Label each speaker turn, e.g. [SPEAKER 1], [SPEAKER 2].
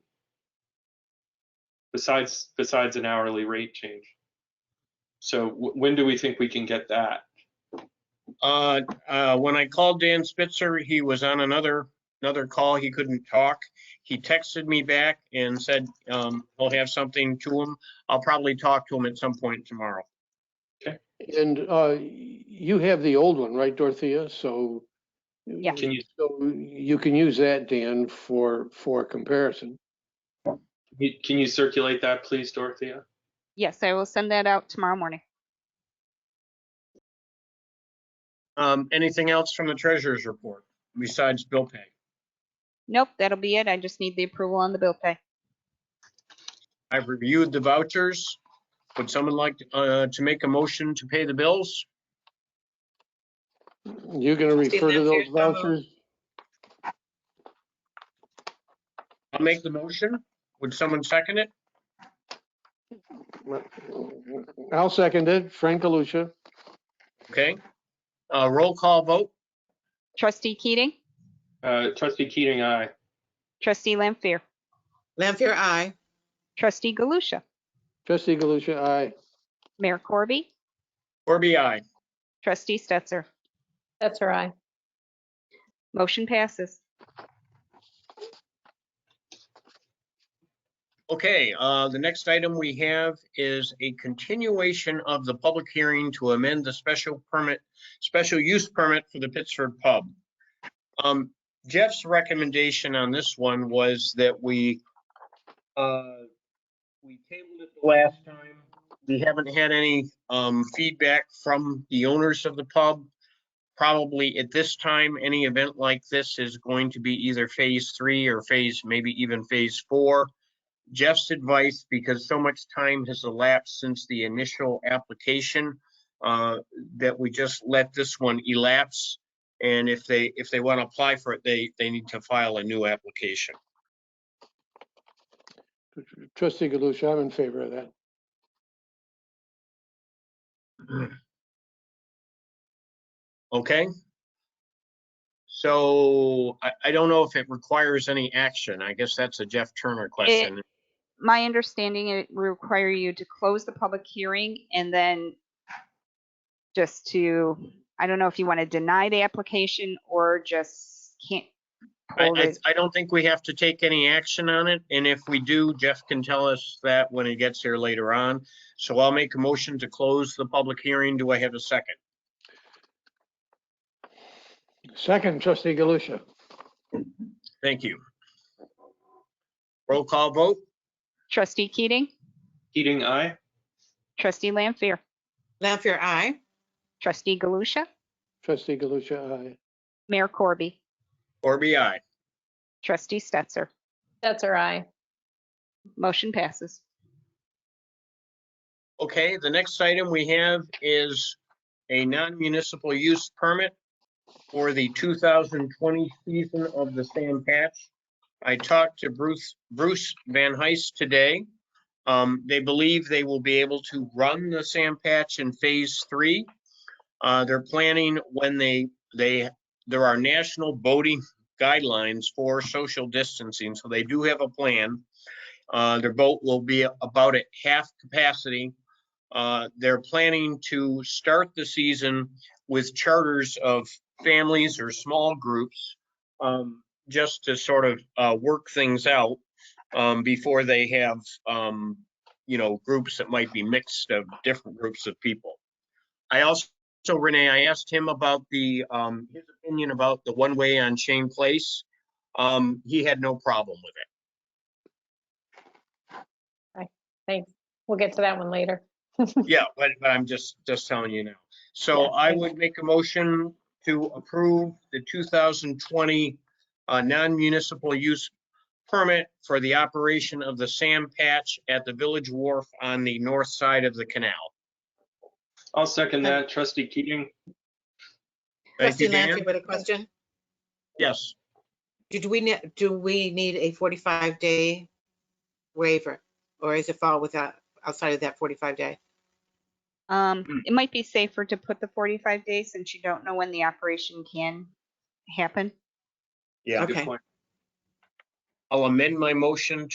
[SPEAKER 1] besides, besides an hourly rate change. So wh- when do we think we can get that?
[SPEAKER 2] Uh, uh, when I called Dan Spitzer, he was on another, another call. He couldn't talk. He texted me back and said, um, he'll have something to him. I'll probably talk to him at some point tomorrow.
[SPEAKER 3] And uh, you have the old one, right, Dorothea? So.
[SPEAKER 4] Yeah.
[SPEAKER 1] Can you,
[SPEAKER 3] So you can use that, Dan, for, for comparison.
[SPEAKER 1] you- can you circulate that, please, Dorothea?
[SPEAKER 4] Yes, I will send that out tomorrow morning.
[SPEAKER 2] Um, anything else from the treasurer's report besides bill pay?
[SPEAKER 4] Nope, that'll be it. I just need the approval on the bill pay.
[SPEAKER 2] I've reviewed the vouchers. Would someone like, uh, to make a motion to pay the bills?
[SPEAKER 3] You're going to refer to those
[SPEAKER 5] Steve, that's your summer.
[SPEAKER 3] vouchers?
[SPEAKER 2] I'll make the motion. Would someone second it?
[SPEAKER 3] I'll second it. Frank Galusha.
[SPEAKER 2] Okay. Uh, roll call vote.
[SPEAKER 4] Trustee Keating,
[SPEAKER 1] Uh, trustee Keating, aye.
[SPEAKER 4] trustee Lampier,
[SPEAKER 5] Lampier, aye.
[SPEAKER 4] trustee Galusha,
[SPEAKER 3] Trustee Galusha, aye.
[SPEAKER 4] Mayor Corby,
[SPEAKER 2] Corby, aye.
[SPEAKER 4] trustee Stetser.
[SPEAKER 6] That's her eye.
[SPEAKER 4] Motion passes.
[SPEAKER 2] Okay, uh, the next item we have is a continuation of the public hearing to amend the special permit, special use permit for the Pittsford Pub. Um, Jeff's recommendation on this one was that we, uh, we tabled it the last time. We haven't had any, um, feedback from the owners of the pub. Probably at this time, any event like this is going to be either phase three or phase, maybe even phase four. Jeff's advice, because so much time has elapsed since the initial application, uh, that we just let this one elapse. And if they, if they want to apply for it, they, they need to file a new application.
[SPEAKER 3] Trustee Galusha, I'm in favor of that.
[SPEAKER 2] Okay? So I, I don't know if it requires any action. I guess that's a Jeff Turner question.
[SPEAKER 4] My understanding, it will require you to close the public hearing and then just to, I don't know if you want to deny the application or just can't.
[SPEAKER 2] I,
[SPEAKER 4] hold
[SPEAKER 2] I,
[SPEAKER 4] it.
[SPEAKER 2] I don't think we have to take any action on it, and if we do, Jeff can tell us that when he gets here later on. So I'll make a motion to close the public hearing. Do I have a second?
[SPEAKER 3] Second, trustee Galusha.
[SPEAKER 2] Thank you. Roll call vote,
[SPEAKER 4] Trustee Keating,
[SPEAKER 1] Keating, aye.
[SPEAKER 4] trustee Lampier,
[SPEAKER 5] Lampier, aye.
[SPEAKER 4] trustee Galusha,
[SPEAKER 3] Trustee Galusha, aye.
[SPEAKER 4] Mayor Corby,
[SPEAKER 2] Corby, aye.
[SPEAKER 4] trustee Stetser.
[SPEAKER 6] That's her eye.
[SPEAKER 4] Motion passes.
[SPEAKER 2] Okay, the next item we have is a non-municipal use permit for the 2020 season of the Sam Patch. I talked to Bruce, Bruce Van Heist today. Um, They believe they will be able to run the Sam Patch in Phase 3. Uh, They're planning when they, they, there are national boating guidelines for social distancing, so they do have a plan. Uh, Their boat will be about at half capacity. Uh, They're planning to start the season with charters of families or small groups um, just to sort of uh, work things out um, before they have, um, you know, groups that might be mixed of different groups of people. I also, so Renee, I asked him about the, um, his opinion about the one-way on Shane Place. Um, He had no problem with it.
[SPEAKER 6] Thanks. We'll get to that one later.
[SPEAKER 2] Yeah, but, but I'm just, just telling you now. So I would make a motion to approve the 2020 uh, non-municipal use permit for the operation of the Sam Patch at the Village Wharf on the north side of the canal.
[SPEAKER 1] I'll second that. Trustee Keating,
[SPEAKER 2] Thank
[SPEAKER 5] Trustee
[SPEAKER 2] you, Dan.
[SPEAKER 5] Lampier with a question.
[SPEAKER 2] Yes,
[SPEAKER 5] Do we, ne- do we need a 45-day waiver? Or is it fall without, outside of that 45-day?
[SPEAKER 1] Hmm.
[SPEAKER 4] Um, it might be safer to put the forty-five days since you don't know when the operation can happen.
[SPEAKER 2] yeah.
[SPEAKER 1] good
[SPEAKER 5] Okay.
[SPEAKER 1] point.
[SPEAKER 2] I'll amend my motion